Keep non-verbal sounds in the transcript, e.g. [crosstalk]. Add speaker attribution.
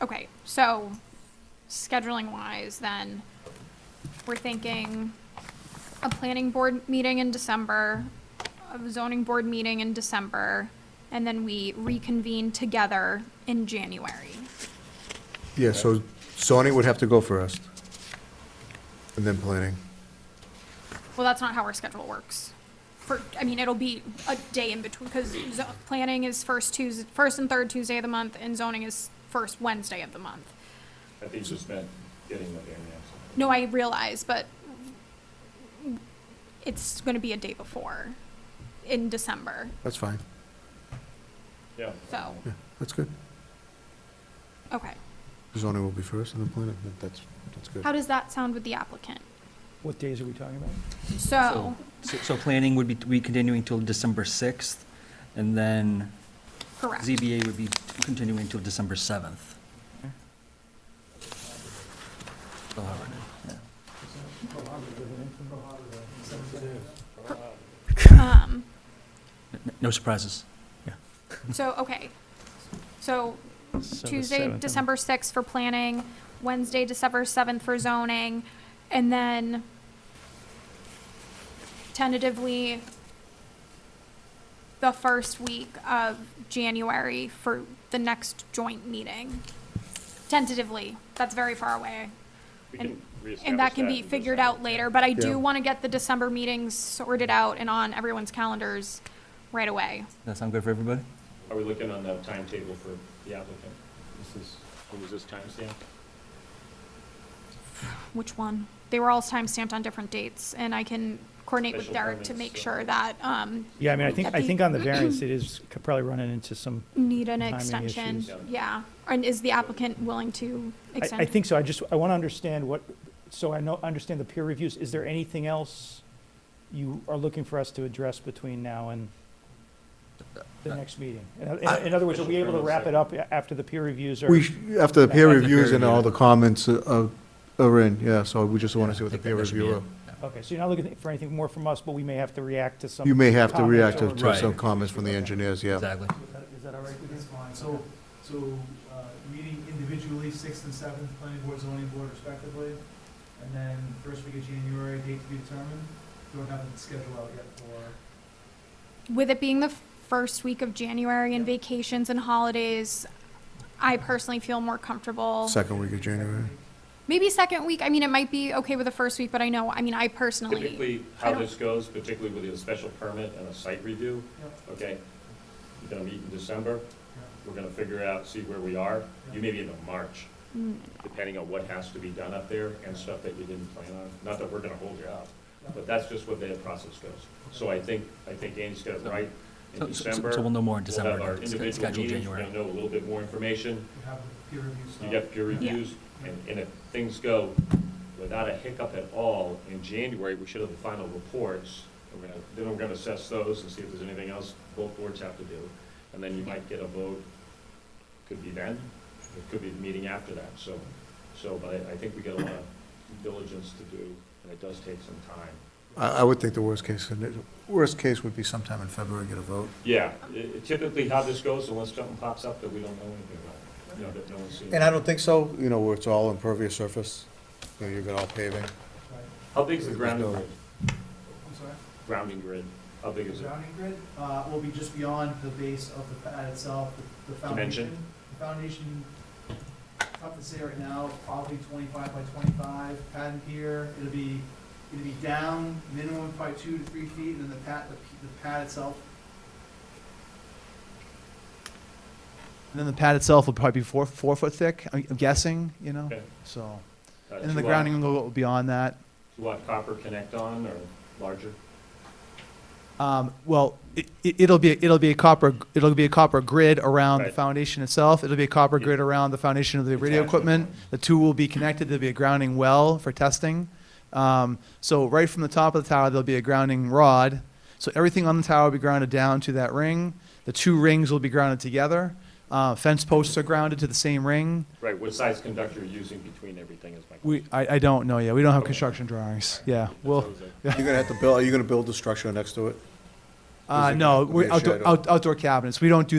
Speaker 1: Okay, so scheduling wise, then we're thinking a planning board meeting in December, a zoning board meeting in December, and then we reconvene together in January.
Speaker 2: Yeah, so zoning would have to go first, and then planning.
Speaker 1: Well, that's not how our schedule works. For, I mean, it'll be a day in between, because planning is first Tuesday, first and third Tuesday of the month, and zoning is first Wednesday of the month.
Speaker 3: I think it's just meant getting what they're asking.
Speaker 1: No, I realize, but it's going to be a day before in December.
Speaker 2: That's fine.
Speaker 3: Yeah.
Speaker 1: So,
Speaker 2: Yeah, that's good.
Speaker 1: okay.
Speaker 2: Zoning will be first, and then planning, that- that's, that's good.
Speaker 1: How does that sound with the applicant?
Speaker 4: What days are we talking about?
Speaker 1: So,
Speaker 5: So, so planning would be, we continuing till December 6th, and then
Speaker 1: correct.
Speaker 5: ZBA would be continuing till December 7th. Still hard, yeah.
Speaker 1: Um,
Speaker 5: N- No surprises.
Speaker 1: so, okay. So Tuesday, December 6th for planning, Wednesday, December 7th for zoning, and then tentatively the first week of January for the next joint meeting. Tentatively, that's very far away.
Speaker 3: We
Speaker 1: And-
Speaker 3: can reestablish
Speaker 1: And that can be
Speaker 3: in
Speaker 1: figured
Speaker 3: December.
Speaker 1: out later, but I
Speaker 2: Yeah.
Speaker 1: do want to get the December meetings sorted out and on everyone's calendars right away.
Speaker 5: That sound good for everybody?
Speaker 3: Are we looking on the timetable for the applicant? This is, what was this timestamp?
Speaker 1: Which one? They were all timestamped on different dates, and I can coordinate with
Speaker 3: Special
Speaker 1: Derek to
Speaker 3: permits,
Speaker 1: make
Speaker 3: so-
Speaker 1: sure that, um,
Speaker 4: Yeah, I mean, I think, I
Speaker 1: Happy-
Speaker 4: think on
Speaker 1: [clears throat]
Speaker 4: the variance, it is c- probably running into some,
Speaker 1: need an
Speaker 4: Timing
Speaker 1: extension,
Speaker 4: issues.
Speaker 1: yeah.
Speaker 3: Yeah.
Speaker 1: And is the applicant willing to
Speaker 4: I,
Speaker 1: extend?
Speaker 4: I think so, I just, I want to understand what, so I know, understand the peer reviews, is there anything else you are looking for us to address between now and
Speaker 2: Uh,
Speaker 4: the next meeting? In, in- in other words, are we able to wrap it up a- after the peer reviews are?
Speaker 2: We, sh- after the peer
Speaker 4: After
Speaker 2: reviews and
Speaker 5: peer
Speaker 2: all
Speaker 5: review.
Speaker 2: the comments are, are in, yeah, so we just want to see what the
Speaker 5: I think that-
Speaker 2: peer
Speaker 5: that should be
Speaker 2: reviewer.
Speaker 5: it. Yeah.
Speaker 4: Okay, so you're not looking for anything more from us, but we may have to react to some.
Speaker 2: You may have to
Speaker 4: comments
Speaker 2: react
Speaker 4: or-
Speaker 2: to some
Speaker 5: Right.
Speaker 2: comments from the engineers, yeah.
Speaker 5: Exactly.
Speaker 6: Is that- Is that all right with you? So, so uh, meeting individually, sixth and seventh, planning board, zoning board respectively, and then first week of January, date to be determined. Don't have it scheduled out yet for,
Speaker 1: With it being the first week of January and vacations and holidays, I personally feel more comfortable.
Speaker 2: Second week of January.
Speaker 1: Maybe second week, I mean, it might be okay with the first week, but I know, I mean, I personally,
Speaker 3: Typically,
Speaker 1: I
Speaker 3: how
Speaker 1: don't-
Speaker 3: this goes, particularly with a special permit and a site review,
Speaker 6: Yep,
Speaker 3: okay? You're gonna meet in December,
Speaker 6: yep.
Speaker 3: we're gonna figure out, see where we are. You may be into March,
Speaker 1: Mm,
Speaker 3: depending on what has to be done up there and stuff that you didn't plan on. Not that we're gonna hold you up, but that's just what the process goes. So I think, I think Andy's got it right. In
Speaker 5: So- so-
Speaker 3: December,
Speaker 5: So we'll know more in
Speaker 3: We'll have our
Speaker 5: December, It's
Speaker 3: individual
Speaker 5: scheduled
Speaker 3: meetings,
Speaker 5: January.
Speaker 3: we'll know a little bit more information,
Speaker 6: We have the peer review stuff.
Speaker 3: you get peer
Speaker 1: Yeah.
Speaker 3: reviews, and, and if things go without a hiccup at all, in January, we should have the final reports. We're gonna, then we're gonna assess those and see if there's anything else both boards have to do, and then you might get a vote. Could be then, it could be the meeting after that, so, so, but I, I think we got a lot of diligence to do, and it does take some time.
Speaker 2: I, I would think the worst case, scenario- worst case would be sometime in February, get a vote.
Speaker 3: Yeah, i- typically how this goes, unless something pops up that we don't know anything about, you know, that no one's seen.
Speaker 2: And I don't think so, you know, where it's all impervious surface, you know, you've got all paving.
Speaker 6: Right.
Speaker 3: How big's the grounding grid?
Speaker 6: I'm sorry?
Speaker 3: Grounding grid, how big is it?
Speaker 6: Grounding grid, uh, will be just beyond the base of the pad itself, the- the foundation.
Speaker 3: Dimension?
Speaker 6: The foundation, tough to say right now, probably twenty-five by twenty-five, pad and pier, it'll be, it'll be down minimum by two to three feet, and then the pad, the p- the pad itself. And then the pad itself will probably be four, four foot thick, I'm I'm guessing, you know,
Speaker 3: Okay.
Speaker 6: so,
Speaker 3: Uh,
Speaker 6: and then the
Speaker 3: two-watt-
Speaker 6: grounding will go beyond that.
Speaker 3: Two-watt copper connect on or larger?
Speaker 6: Um, well, it, it'll be, it'll be a copper, it'll be a copper grid around the
Speaker 3: Right.
Speaker 6: foundation itself. It'll be a copper
Speaker 3: Yeah.
Speaker 6: grid around the foundation of the radio
Speaker 3: Attachment
Speaker 6: equipment.
Speaker 3: points.
Speaker 6: The two will be connected. There'll be a grounding well for testing. Um, so right from the top of the tower, there'll be a grounding rod. So everything on the tower will be grounded down to that ring. The two rings will be grounded together. Uh, fence posts are grounded to the same ring.
Speaker 3: Right, what size conductor you're using between everything is my question.
Speaker 6: We, I, I don't know yet. We don't have
Speaker 3: Okay.
Speaker 6: construction drawings. Yeah,
Speaker 3: That's what I
Speaker 6: we'll,
Speaker 3: was like,
Speaker 2: You're gonna have to build, are you gonna build the structure next to it?
Speaker 6: uh,
Speaker 2: Is it
Speaker 6: no,
Speaker 2: gonna be
Speaker 6: we're
Speaker 2: a
Speaker 6: outdoor,
Speaker 2: shed or-
Speaker 6: out- outdoor cabinets. We don't do